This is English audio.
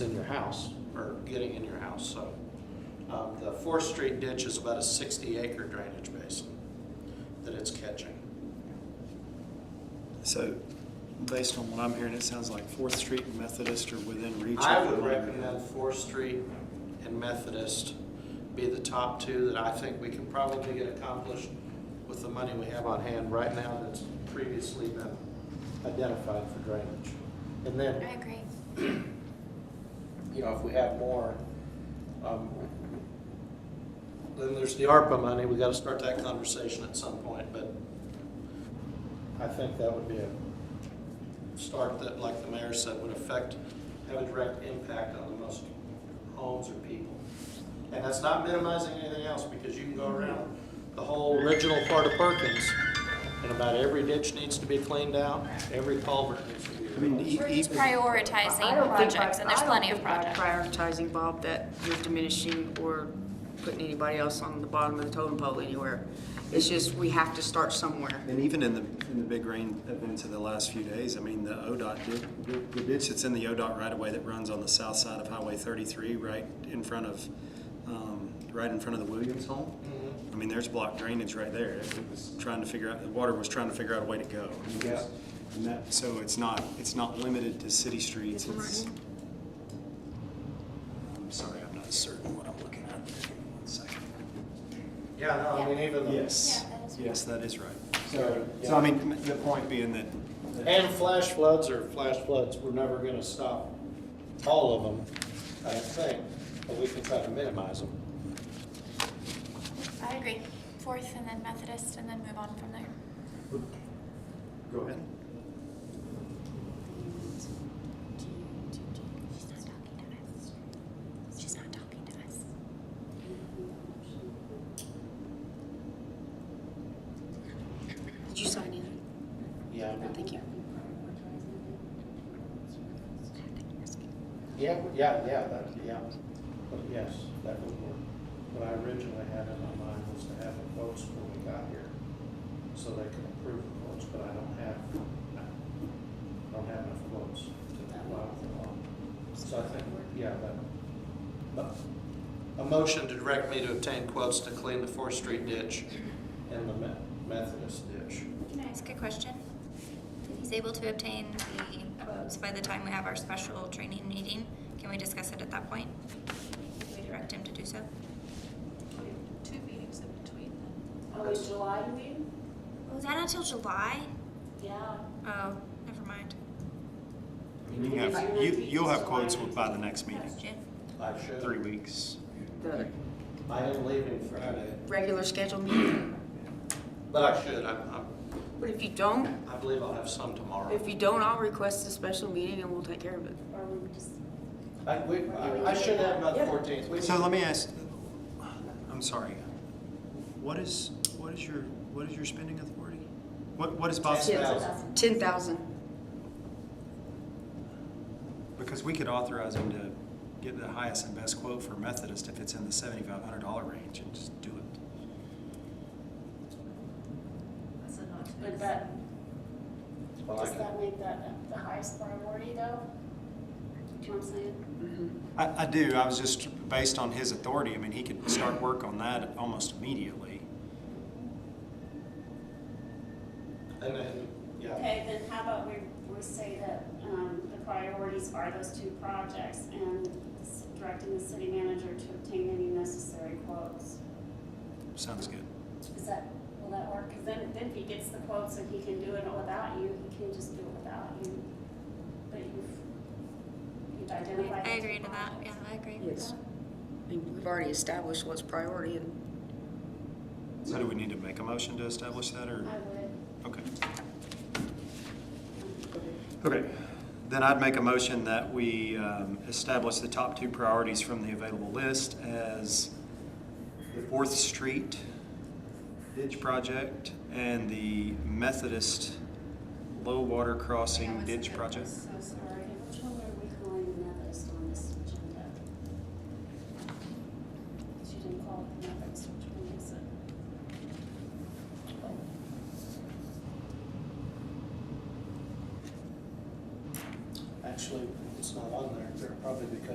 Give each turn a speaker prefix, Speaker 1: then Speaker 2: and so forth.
Speaker 1: in your house, or getting in your house, so. Um, The Fourth Street ditch is about a 60-acre drainage basin that it's catching.
Speaker 2: So, based on what I'm hearing, it sounds like Fourth Street and Methodist are within reach.
Speaker 1: I
Speaker 2: of the
Speaker 1: would
Speaker 2: money.
Speaker 1: recommend Fourth Street and Methodist be the top two that I think we can probably get accomplished with the money we have on hand right now that's previously been identified for drainage. And then
Speaker 3: I agree.
Speaker 1: you know, if we have more, um, then there's the ARPA money, we gotta start that conversation at some point, but I think that would be a start that, like the mayor said, would affect, have a direct impact on the most homes or people. And that's not minimizing anything else, because you can go around the whole original part of Perkins, and about every ditch needs to be cleaned out, every culvert needs to be.
Speaker 2: I mean, e-
Speaker 3: We're just
Speaker 2: even,
Speaker 4: I
Speaker 3: prioritizing
Speaker 4: don't think
Speaker 3: projects,
Speaker 4: by-
Speaker 3: and there's plenty of projects.
Speaker 4: I don't think by prioritizing, Bob, that you're diminishing or putting anybody else on the bottom of the totem pole anywhere. It's just, we have to start somewhere.
Speaker 2: and even in the, in the big rain events of the last few days, I mean, the ODOT, did- the, the ditch that's in the ODOT right away that runs on the south side of Highway thirty-three, right in front of, um, right in front of the Williams home.
Speaker 3: Mm-hmm.
Speaker 2: I mean, there's blocked drainage right there. It was trying to figure out, the water was trying to figure out a way to go. I mean, it was- And that, so it's not, it's not limited to city streets, it's. I'm sorry, I'm not certain what I'm looking at. One second.
Speaker 1: Yeah, no, I mean, even. the-
Speaker 2: Yes,
Speaker 3: Yeah, that is right.
Speaker 2: yes, that is right.
Speaker 1: So,
Speaker 2: So I mean, m- the point being that. that-
Speaker 1: And flash floods are flash floods, we're never gonna stop all of them, I think, but we can try to minimize them.
Speaker 3: I agree. Fourth and then Methodist and then move on from there.
Speaker 2: Go ahead.
Speaker 3: She's not talking to us. She's not talking to us.
Speaker 4: Did you sign in?
Speaker 1: Yeah.
Speaker 4: Thank you.
Speaker 1: Yeah, yeah, yeah, that, yeah. But yes, that would work. What I originally had in my mind was to have the votes when we got here, so they can approve the votes, but I don't have, I don't have enough votes to allow the law. So I think, yeah, that, but. A motion to direct me to obtain quotes to clean the Fourth Street ditch and the Me- Methodist ditch.
Speaker 5: Can I ask a question? If he's able to obtain the quotes by the time we have our special training meeting, can we discuss it at that point? Can we direct him to do so?
Speaker 6: Two meetings in between then.
Speaker 7: Oh, in July, you mean?
Speaker 5: Oh, is that not till July?
Speaker 7: Yeah.
Speaker 5: Oh, never mind.
Speaker 2: You have, you, you'll have quotes by the next meeting,
Speaker 5: June.
Speaker 1: I should.
Speaker 2: three weeks.
Speaker 4: The
Speaker 1: I am leaving Friday,
Speaker 4: regular scheduled meeting.
Speaker 1: but I should, I'm, I'm,
Speaker 4: But if you don't,
Speaker 1: I believe I'll have some tomorrow.
Speaker 4: if you don't, I'll request a special meeting and we'll take care of it.
Speaker 7: Or we just,
Speaker 1: I, we, I I should have about the fourteenth. We-
Speaker 2: So let me ask, I'm sorry, what is, what is your, what is your spending authority? What, what is Bob's?
Speaker 1: Ten.
Speaker 4: Ten thousand.
Speaker 2: Because we could authorize him to get the highest and best quote for Methodist if it's in the seventy-five hundred dollar range and just do it.
Speaker 6: I said not to.
Speaker 7: but that,
Speaker 1: Well, I
Speaker 7: does
Speaker 1: can-
Speaker 7: that make that the highest priority though? Do you know what I'm saying?
Speaker 2: I, I do, I was just, based on his authority, I mean, he could start work on that almost immediately.
Speaker 1: And then, yeah,
Speaker 7: Okay, then how about we, we say that, um, the priorities are those two projects and s- directing the city manager to obtain any necessary quotes?
Speaker 2: Sounds good.
Speaker 7: Is that, will that work? Cause then, then if he gets the quotes and he can do it without you, he can just do it without you. But you've, you've identified.
Speaker 5: I
Speaker 7: the two
Speaker 5: agree to that.
Speaker 7: projects.
Speaker 5: Yeah, I agree with
Speaker 4: Yes.
Speaker 5: that.
Speaker 4: I mean, We've already established what's priority and
Speaker 2: So do we need to make a motion to establish that, or?
Speaker 7: I would. um,
Speaker 2: Okay. Okay. Then I'd make a motion that we um, establish the top two priorities from the available list as the Fourth Street ditch project and the Methodist low water crossing ditch project.
Speaker 7: So sorry, which one were we calling the Methodist on this agenda? She didn't call it the Methodist, which one is it?
Speaker 1: actually, it's not on there, they're probably because